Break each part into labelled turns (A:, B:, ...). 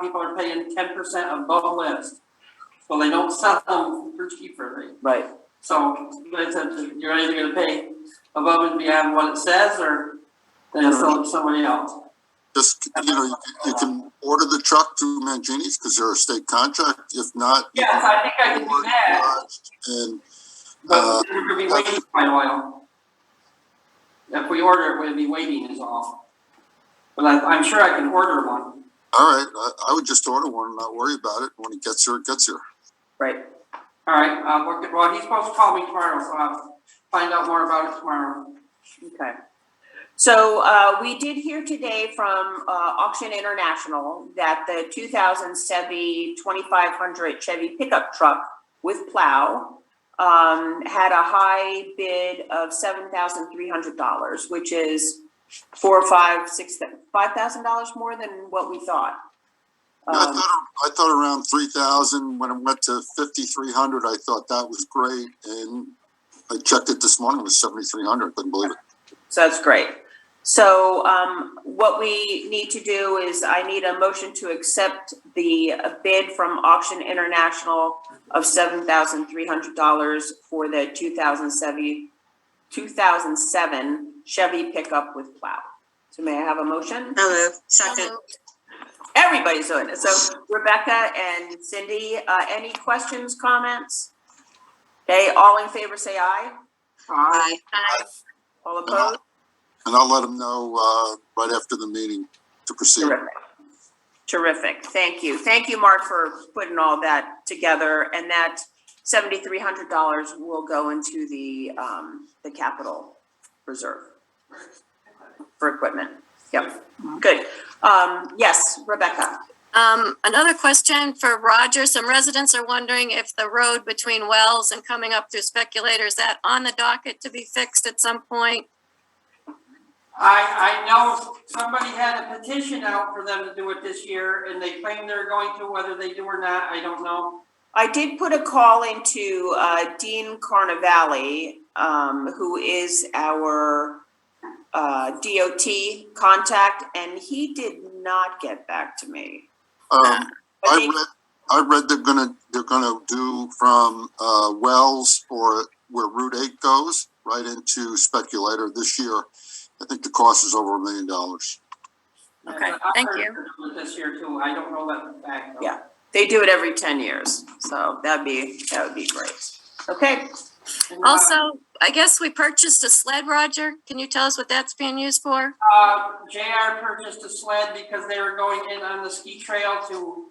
A: people are paying ten percent above list. Well, they don't sell them for cheaper, right?
B: Right,
A: So, like I said, you're either gonna pay above and beyond what it says, or then you'll sell it to somebody else.
C: Just, you
B: Um,
C: know, you- you can order the truck through Mangini's because they're a state contract. If not. you
A: Yes,
C: can
A: I think I can do
C: order
A: that,
C: Dodge And, uh,
A: but we're gonna be waiting quite a while. If we order it, we'll be waiting is all. But I, I'm sure I can order one.
C: all right, I, I would just order one and not worry about it. When it gets here, it gets here.
B: right.
A: All right, uh, we're good- well, he's supposed to call me tomorrow, so I'll find out more about it tomorrow.
B: Okay. So uh, we did hear today from uh, Auction International that the 2000 Chevy 2500 Chevy pickup truck with plow um, had a high bid of $7,300, which is four, five, six, $5,000 more than what we thought.
C: I
B: Um,
C: thought, I thought around three thousand, when it went to fifty-three hundred, I thought that was great, and I checked it this morning, it was seventy-three hundred, couldn't believe it.
B: So that's great. So um, what we need to do is I need a motion to accept the uh, bid from Auction International of seven thousand three hundred dollars for the two thousand seven, two thousand seven Chevy pickup with plow. So may I have a motion?
D: Hello, second.
B: Everybody's doing it. So Rebecca and Cindy, uh, any questions, comments? Okay, all in favor, say aye.
D: Aye.
B: All opposed?
C: And I'll let them know, uh, right after the meeting to proceed.
B: Terrific. Terrific. Thank you. Thank you, Mark, for putting all that together. And that seventy-three hundred dollars will go into the, um, the capital reserve for equipment. Yep, good. Um, yes, Rebecca.
E: Um, another question for Roger. Some residents are wondering if the road between Wells and coming up through Speculator, is that on the docket to be fixed at some point?
A: I, I know somebody had a petition out for them to do it this year, and they claim they're going to, whether they do or not, I don't know.
B: I did put a call into, uh, Dean Carnavale, um, who is our, uh, DOT contact, and he did not get back to me.
C: Um,
B: But
C: I
B: they-
C: read, I read they're gonna, they're gonna do from, uh, Wells or where Route eight goes, right into Speculator this year. I think the cost is over a million dollars.
B: Okay,
A: And I
E: thank
A: heard
E: you.
A: they're doing it This year too, I don't know that back though.
B: Yeah. They do it every ten years, so that'd be, that would be great. Okay,
A: And, uh,
E: Also, I guess we purchased a sled, Roger. Can you tell us what that's being used for?
A: Uh, JR purchased a sled because they were going in on the ski trail to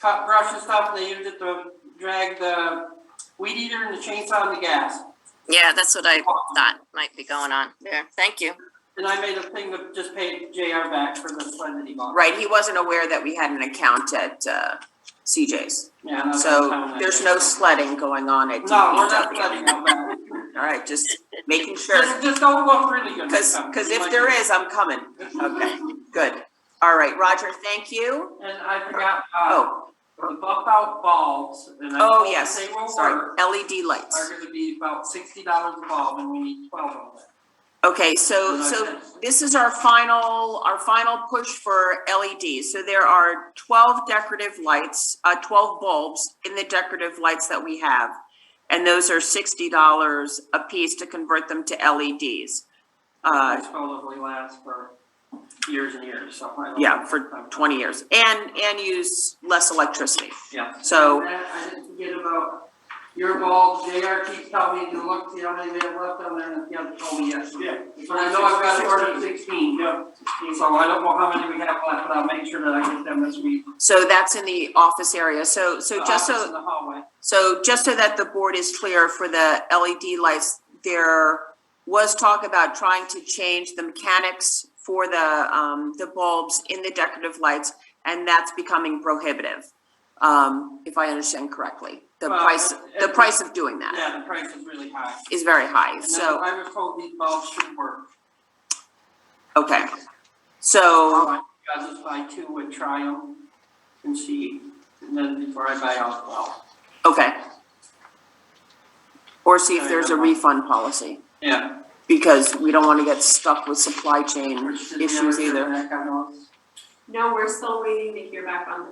A: cut brush and stuff, and they used it to drag the weed eater and the chainsaw and the gas.
E: Yeah, that's what I thought might be going on there. Thank you.
A: And I made a thing to just pay JR back for the sled that he bought.
B: right, he wasn't aware that we had an account at uh, CJ's.
A: Yeah, that's what I'm
B: So
A: telling
B: there's
A: you.
B: no sledding going on at
A: Oh, No, we're not
B: DPW.
A: sledding on that.
B: All right, just making sure,
A: Just, just don't look really good.
B: because, because if there is, I'm coming. Okay, good. All right, Roger, thank you.
A: And I forgot, uh,
B: Oh,
A: the bump out bulbs, and I
B: oh,
A: told them
B: yes,
A: they will
B: sorry,
A: work,
B: LED
A: are
B: lights.
A: gonna be about sixty dollars a bulb, and we need twelve of them.
B: Okay, so, so this is our final, our final push for LEDs. So there are twelve decorative lights, uh, twelve bulbs in the decorative lights that we have. And those are sixty dollars a piece to convert them to LEDs. Uh,
A: It's probably lasts for years and years, so. I don't
B: yeah,
A: know. Uh,
B: for twenty years and, and use less electricity.
A: Yeah.
B: So-
A: And then I didn't forget about your ball, JR keeps telling me to look, see how many they have left on there, and he hasn't told me yet.
F: Yeah.
A: But I know I've got to order sixteen, yeah, so I don't know how many we have left, but I'll make sure that I get them this week.
B: So that's in the office area. So, so
A: The
B: just so.
A: office In the hallway.
B: So just so that the board is clear for the LED lights, there was talk about trying to change the mechanics for the, um, the bulbs in the decorative lights, and that's becoming prohibitive, um, if I understand correctly. The
A: Well,
B: price,
A: it-
B: the
A: it-
B: price of doing that
A: Yeah, the price is really high.
B: is very high,
A: And then
B: so,
A: I was told these bulbs should work.
B: okay. So,
A: I'll just buy two and try them and see, and then before I buy all twelve.
B: okay. Or see if there's a refund policy,
A: Yeah.
B: because we don't wanna get stuck with supply chain
A: Which did the
B: issues
A: other
B: either.
A: back on those.
G: No, we're still waiting to hear back on the